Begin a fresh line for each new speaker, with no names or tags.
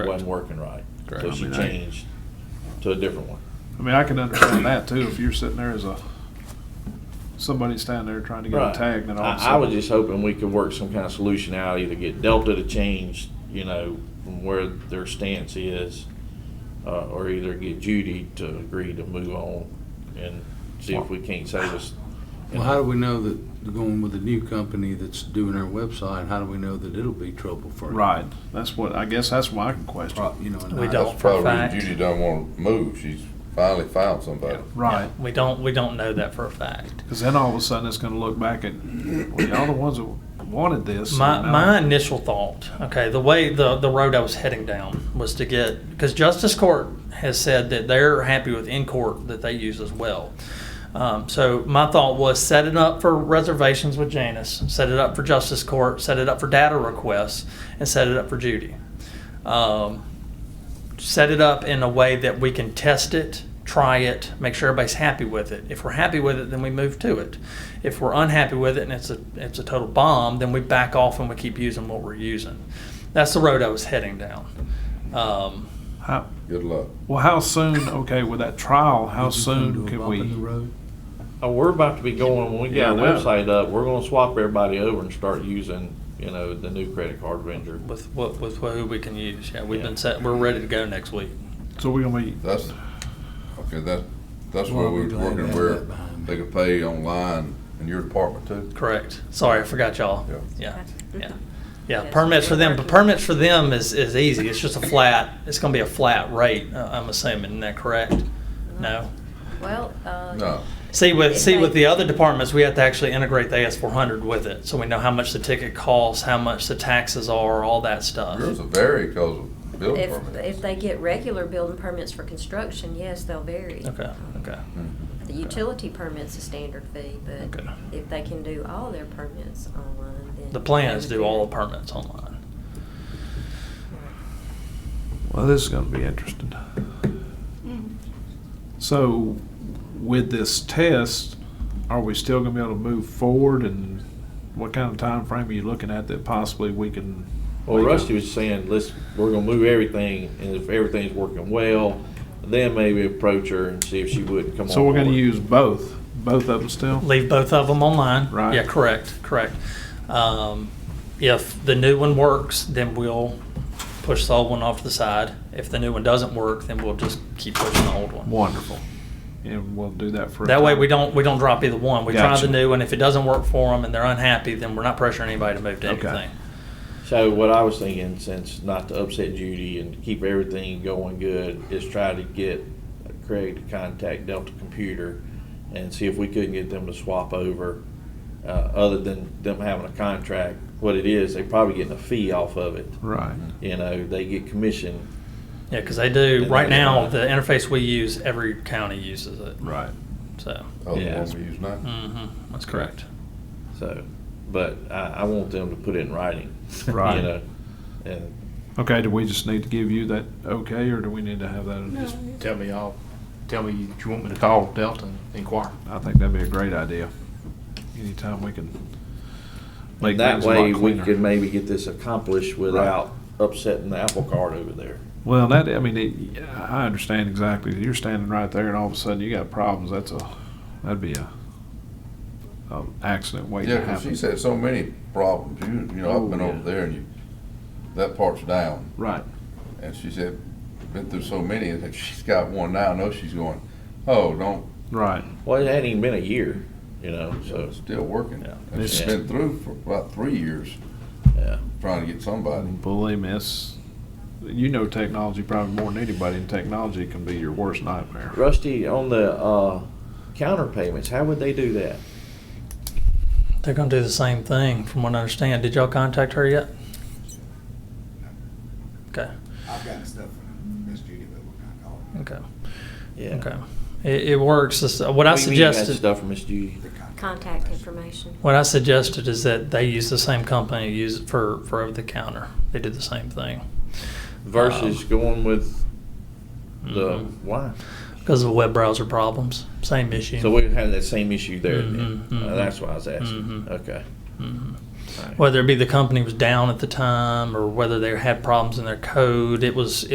wasn't working right.
Correct.
So
I
she
mean, I-
changed to a different one.
I mean, I can understand that too, if you're sitting there as a, somebody standing there trying to get
Right.
a tag, then all of a
I, I was
sudden.
just hoping we could work some kind of solution out, either get Delta to change, you know, from where their stance is, uh, or either get Judy to agree to move on and see if we can't save us.
Well, how do we know that going with the new company that's doing our website, how do we know that it'll be trouble for?
Right, that's what, I guess that's what I can question.
Pro- You know, and
We
not-
don't.
That's
for a
probably the
fact.
reason Judy don't want to move. She's finally found somebody.
Right,
Yeah, We don't, we don't know that for a fact.
because then all of a sudden it's gonna look back at, well, y'all the ones that wanted this.
My,
and now-
my initial thought, okay, the way, the, the road I was heading down was to get, because Justice Court has said that they're happy with in-court that they use as well. Um, so my thought was set it up for reservations with Janice, set it up for Justice Court, set it up for data requests, and set it up for Judy. Um, set it up in a way that we can test it, try it, make sure everybody's happy with it. If we're happy with it, then we move to it. If we're unhappy with it and it's a it's a total bomb, then we back off and we keep using what we're using. That's the road I was heading down. Um,
How,
Good luck.
well, how soon, okay, with that trial, how
Did you come to
soon
a
can
bump in the
we?
road?
Oh, we're about to be going, when we
Yeah,
get our
well.
website up, we're gonna swap everybody over and start using, you know, the new credit card vendor.
with what with who we can use. Yeah, we've
Yeah.
been set. We're ready to go next week.
So we're gonna be,
That's okay. That that's
Well,
where we
I'd be
were
glad to
working
have
where
that behind me.
they could pay online in your department too.
Correct. Sorry, I forgot y'all.
Yeah.
Yeah. Yeah.
Mhm.
Yeah,
Yes,
permits for
we're
them, but
working on
permits for them is, is easy. It's just a flat, it's gonna be a flat rate, uh, I'm assuming. Isn't that correct? No?
Mm-hmm. Well, uh.
No.
See with, see with the
Right.
other departments, we have to actually integrate the AS four hundred with it, so we know how much the ticket costs, how much the taxes are, all that stuff.
Yours will vary because of building
If,
permits.
if they get regular building permits for construction, yes, they'll vary.
Okay, okay.
Mm. Mm-hmm.
The utility permit's a standard fee, but
Okay.
if they can do all their permits online, then.
The plan is
they
to
would
do all the
vary.
permits online.
well, this is gonna be interesting. So with this test, are we still gonna be able to move forward and what kind of time frame are you looking at that possibly we can?
Well, Rusty was saying, let's, we're gonna move everything, and if everything's working well, then maybe approach her and see if she would come on.
So we're gonna
board.
use both, both of them still?
Leave both of them online.
Right.
Yeah, correct, correct. Um, if the new one works, then we'll push the old one off to the side. If the new one doesn't work, then we'll just keep pushing the old one.
Wonderful. And we'll do that for. a
That way,
time.
we don't, we don't drop either one. We try
Gotcha.
the new, and if it doesn't work for them and they're unhappy, then we're not pressuring anybody to move to
Okay.
anything.
So what I was thinking, since not to upset Judy and to keep everything going good, is try to get Craig to contact Delta Computer and see if we couldn't get them to swap over, uh, other than them having a contract. What it is, they're probably getting a fee off of it.
Right.
You know, they get commission.
Yeah, because they do,
And
right
they
now,
don't.
the interface we use, every county uses it,
Right.
so.
Oh, the
Yeah.
one we use now.
Mm-hmm, that's correct.
So, but I, I want them to put it in writing.
Right.
You know, and
Okay, do we just need to give you that okay, or do we need to have that? just-
Tell me, I'll, tell me you want me to call Delta and inquire.
I think that'd be a great idea. Anytime we can. make
And that
things a lot
way, we
cleaner.
could maybe get this accomplished without upsetting the apple cart over there.
Well, that, I mean, it, I understand exactly. You're standing right there and all of a sudden you got problems. That's a, that'd be a, a accident waiting
Yeah,
to
'cause
happen.
she's had so many problems. You, you know,
Oh,
I've been
yeah.
over there and you, that part's down.
Right.
And she said, been through so many, and if she's got one now, I know she's going, oh, don't,
Right.
Well, it hadn't even been a year, you know, so,
it's still working.
Yeah.
And she's
Yeah.
been through for about three years
yeah.
trying to get somebody.
Believe me, it's, you know technology probably more than anybody, and technology can be your worst nightmare.
Rusty, on the, uh, counter payments, how would they do that?
They're gonna do the same thing, from what I understand. Did y'all contact her yet? Okay,
I've gotten stuff from Miss Judy, but we're not calling
okay,
it
Yeah.
okay. It, it works, This- what I
What do you mean you got
suggested.
Stuff from Miss Judy.
the contract.
Contact information.
What I suggested is that they use the same company, use it for, for over the counter. They did the same thing. Um,
Um,
Versus going with the,
Mhm.
mm-hmm.
why?
Because of web browser problems, same issue.
So we had that same issue there
Mhm,
Mm-hmm,
then. Uh,
mhm.
That's why I was asking.
Mhm.
Okay.
Mhm. whether it be the company was down at the time or whether they had problems in their code. It was